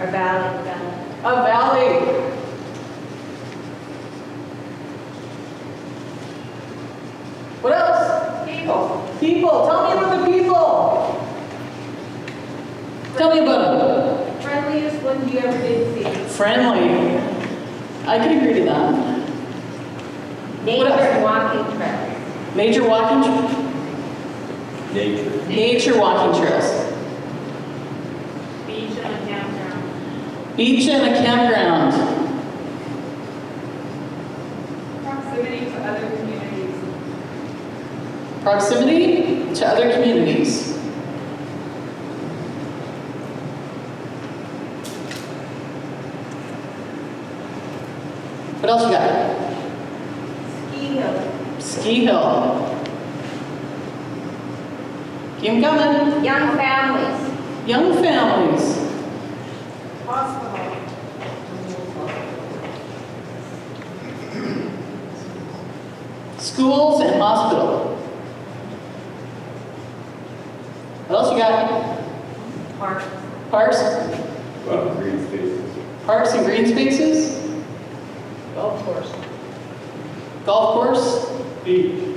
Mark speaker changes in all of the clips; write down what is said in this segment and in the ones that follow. Speaker 1: Or Valley, Valley.
Speaker 2: A valley. What else?
Speaker 1: People.
Speaker 2: People, tell me about the people. Tell me about
Speaker 1: Friendliest one you ever did see.
Speaker 2: them. Friendly. I can agree to that.
Speaker 1: Nature walking trails.
Speaker 2: Major walking, tr-
Speaker 3: Nature.
Speaker 2: nature walking trails.
Speaker 1: Beach and downtown.
Speaker 2: Beach and a campground.
Speaker 4: Proximity to other communities.
Speaker 2: Proximity to other communities. What else you got?
Speaker 1: Ski hill.
Speaker 2: Ski hill. Keep 'em coming.
Speaker 1: Young families.
Speaker 2: Young families.
Speaker 1: Hospital.
Speaker 2: Schools and hospital. What else you got?
Speaker 1: Parks.
Speaker 2: Parks,
Speaker 3: Well, green spaces.
Speaker 2: parks and green spaces? Golf course. Golf course?
Speaker 3: Beach.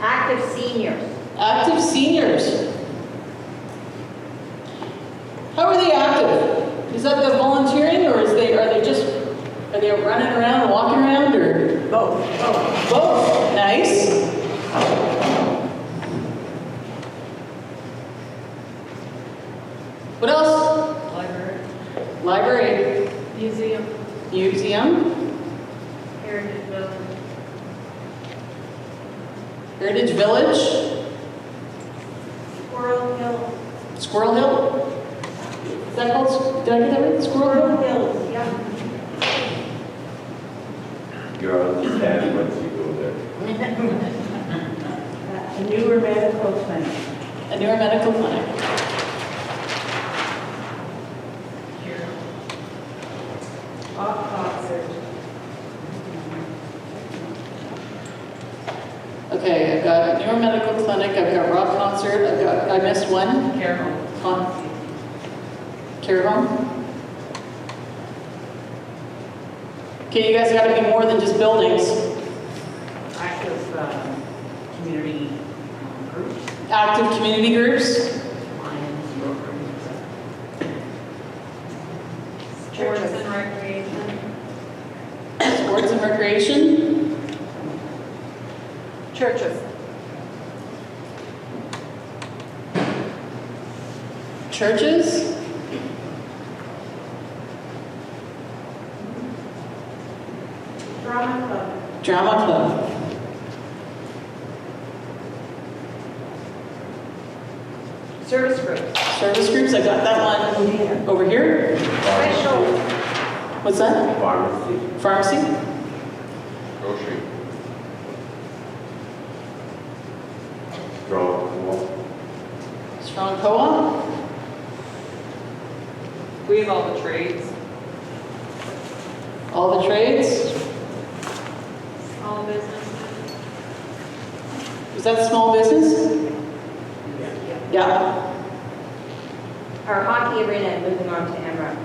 Speaker 1: Active seniors.
Speaker 2: Active seniors. How are they active? Is that the volunteering or is they, are they just, are they running around, and walking around or? Both. Both, nice. What else?
Speaker 4: Library.
Speaker 2: Library,
Speaker 4: Museum.
Speaker 2: museum,
Speaker 1: Heritage building.
Speaker 2: Heritage Village,
Speaker 1: Squirrel Hill.
Speaker 2: Squirrel Hill. Is that called, did I get that right?
Speaker 1: Squirrel
Speaker 2: Squirrel Hill?
Speaker 1: Hills, yeah.
Speaker 3: You're on the tab once you go there.
Speaker 5: A newer medical clinic.
Speaker 2: A newer medical clinic.
Speaker 4: Off concert.
Speaker 2: Okay, I've got Neuro Medical Clinic, I've got rock concert, I've got, I missed one,
Speaker 4: Carol.
Speaker 2: Con- care home. Okay, you guys gotta be more than just buildings,
Speaker 5: Active um, community um, groups,
Speaker 2: active community groups,
Speaker 5: Lions, Rovers, et cetera.
Speaker 4: Sports and recreation.
Speaker 2: sports and recreation,
Speaker 4: Churches.
Speaker 2: churches.
Speaker 1: Drama club.
Speaker 2: Drama Club.
Speaker 1: Service groups.
Speaker 2: Service groups, I got that one over here.
Speaker 1: Special.
Speaker 2: What's that?
Speaker 3: Pharmacy.
Speaker 2: Pharmacy?
Speaker 3: Grocery. Strong wall.
Speaker 2: Strong co-op?
Speaker 4: We have all the trades.
Speaker 2: All the trades?
Speaker 4: All businesses.
Speaker 2: Is that small business? Yeah.
Speaker 1: Our hockey arena, moving on to Emerald.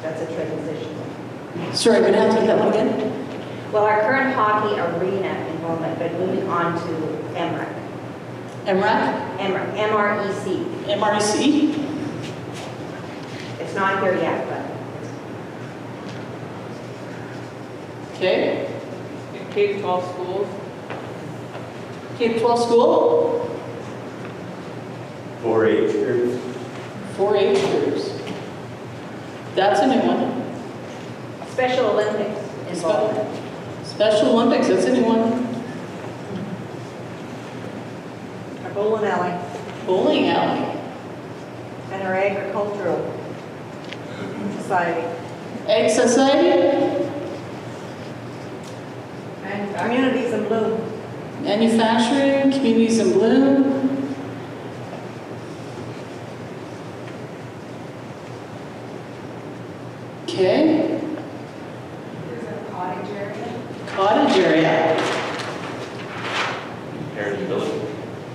Speaker 1: That's a transition.
Speaker 2: Sorry, I'm gonna have to get that one again.
Speaker 1: Well, our current hockey arena enrollment, but moving on to MREC,
Speaker 2: MREC,
Speaker 1: MREC, MREC.
Speaker 2: MRC,
Speaker 1: It's not here yet, but
Speaker 2: okay.
Speaker 4: K-12 schools.
Speaker 2: K-12 school,
Speaker 3: 4-H groups.
Speaker 2: 4-H groups. That's a new one.
Speaker 1: Special Olympics
Speaker 2: Spe-
Speaker 1: involvement.
Speaker 2: Special Olympics, that's a new one.
Speaker 5: Our bowling alley
Speaker 2: Bowling alley,
Speaker 5: and our agricultural society,
Speaker 2: egg society,
Speaker 4: And
Speaker 5: communities in bloom.
Speaker 2: manufacturing, communities in bloom.